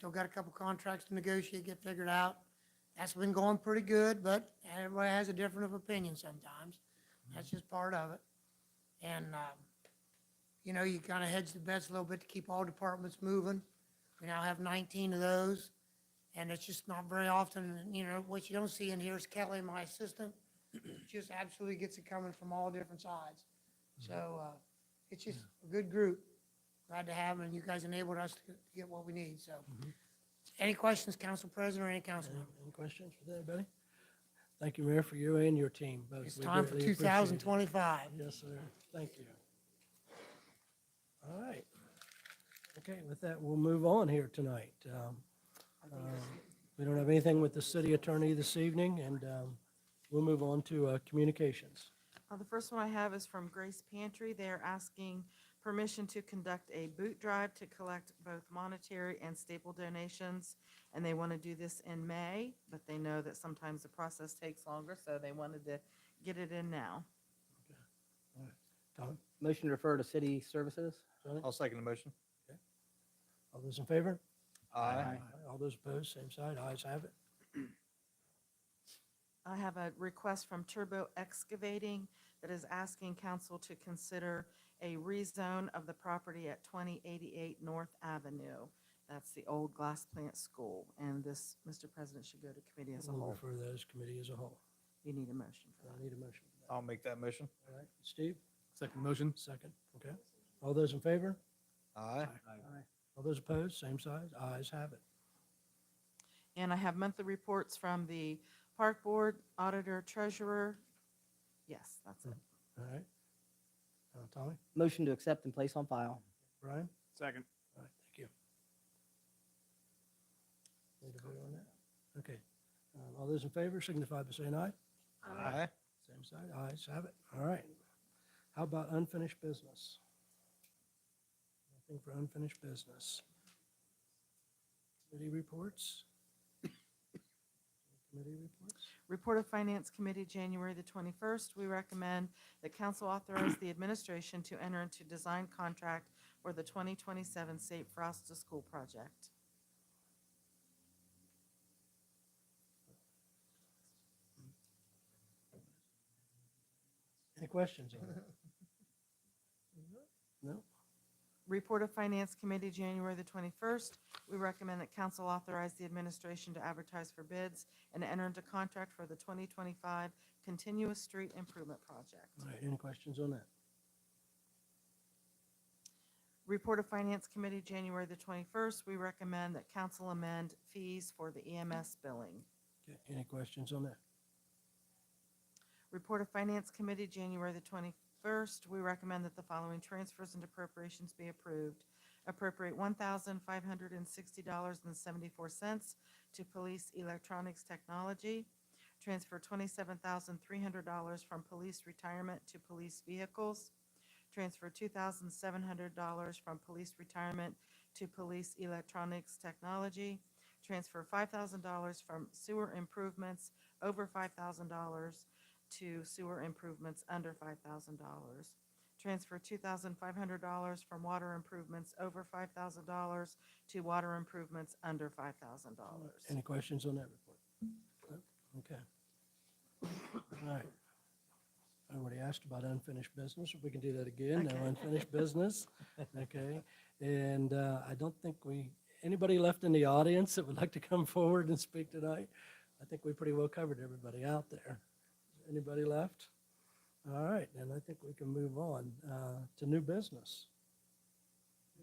Still got a couple contracts to negotiate, get figured out. That's been going pretty good, but everybody has a different of opinion sometimes. That's just part of it. And, um, you know, you kind of hedge the bets a little bit to keep all departments moving. We now have nineteen of those. And it's just not very often, and, you know, what you don't see in here is Kelly, my assistant, just absolutely gets it coming from all different sides. So, uh, it's just a good group. Glad to have them, and you guys enabled us to get what we need, so. Any questions, Council President or any council member? Uh, Any questions for anybody? Thank you, Mayor, for you and your team both. It's We time for greatly two appreciate it. thousand twenty-five. Yes, sir. Thank you. All right. Okay, with that, we'll move on here tonight. Um, um, We don't have anything with the city attorney this evening, and um, we'll move on to uh, communications. Uh, The first one I have is from Grace Pantry. They're asking permission to conduct a boot drive to collect both monetary and staple donations. And they want to do this in May, but they know that sometimes the process takes longer, so they wanted to get it in now. Tom, Motion to refer to city services? Sonny, I'll second the motion. all those in favor? All those opposed, same side, ayes have it. I have a request from Turbo Excavating that is asking council to consider a rezone of the property at 2088 North Avenue. That's the old glass plant school, and this, Mr. President, should go to committee as a We'll whole. refer those committee as a whole. You need a motion for I that. need a motion. for that. I'll make that motion. All right, Steve, Second motion. second, okay. All those in favor? Aye. All those opposed, same side, ayes have it. And I have monthly reports from the park board, auditor, treasurer. Yes, that's it. All right. Uh, Tommy, Motion to accept and place on file? Brian? Second. All right, thank you. Need to vote on that? Okay. Um, All those in favor signify by saying aye. Aye. Same side, ayes have it. All right. How about unfinished business? Nothing for unfinished business. Committee reports? Committee reports? Report of Finance Committee, January the 21st, we recommend that council authorize the administration to enter into design contract for the 2027 Safe Frost to School project. Any questions on that? No? Report of Finance Committee, January the 21st, we recommend that council authorize the administration to advertise for bids and enter into contract for the 2025 Continuous Street Improvement Project. All right, any questions on that? Report of Finance Committee, January the 21st, we recommend that council amend fees for the EMS billing. Okay, Any questions on that? Report of Finance Committee, January the 21st, we recommend that the following transfers and appropriations be approved. Appropriate $1,560.74 to Police Electronics Technology. Transfer $27,300 from Police Retirement to Police Vehicles. Transfer $2,700 from Police Retirement to Police Electronics Technology. Transfer $5,000 from Sewer Improvements over $5,000 to sewer improvements under five thousand dollars. Transfer two thousand five hundred dollars from water improvements over five thousand dollars to water improvements under five thousand dollars. Any questions on that report? No? Okay. All right. I already asked about unfinished business. If we can do that again, no Okay. unfinished business. Okay. And uh, I don't think we, anybody left in the audience that would like to come forward and speak tonight? I think we pretty well covered everybody out there. Anybody left? All right, then I think we can move on uh, to new business.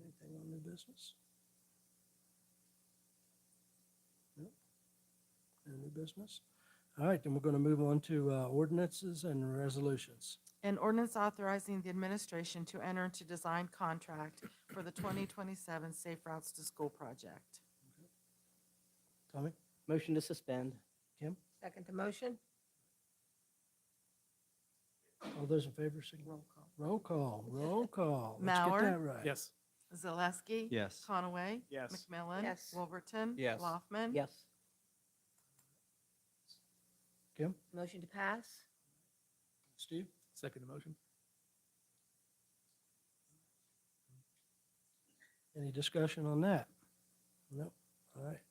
Anything on new business? No new business? All right, then we're going to move on to uh, ordinances and resolutions. An ordinance authorizing the administration to enter into design contract for the twenty twenty-seven Safe Routes to School project. Tommy? Motion to suspend? Second the motion? All those in favor, signal. Roll call. Roll call, roll call. Let's get Mauer? that right. Yes. Zaleski? Yes. Conaway? Yes. McMillan? Yes. Wolverton? Yes. Laufman? Yes. Kim? Motion to pass? Steve? Second the motion. Any discussion on that? Nope.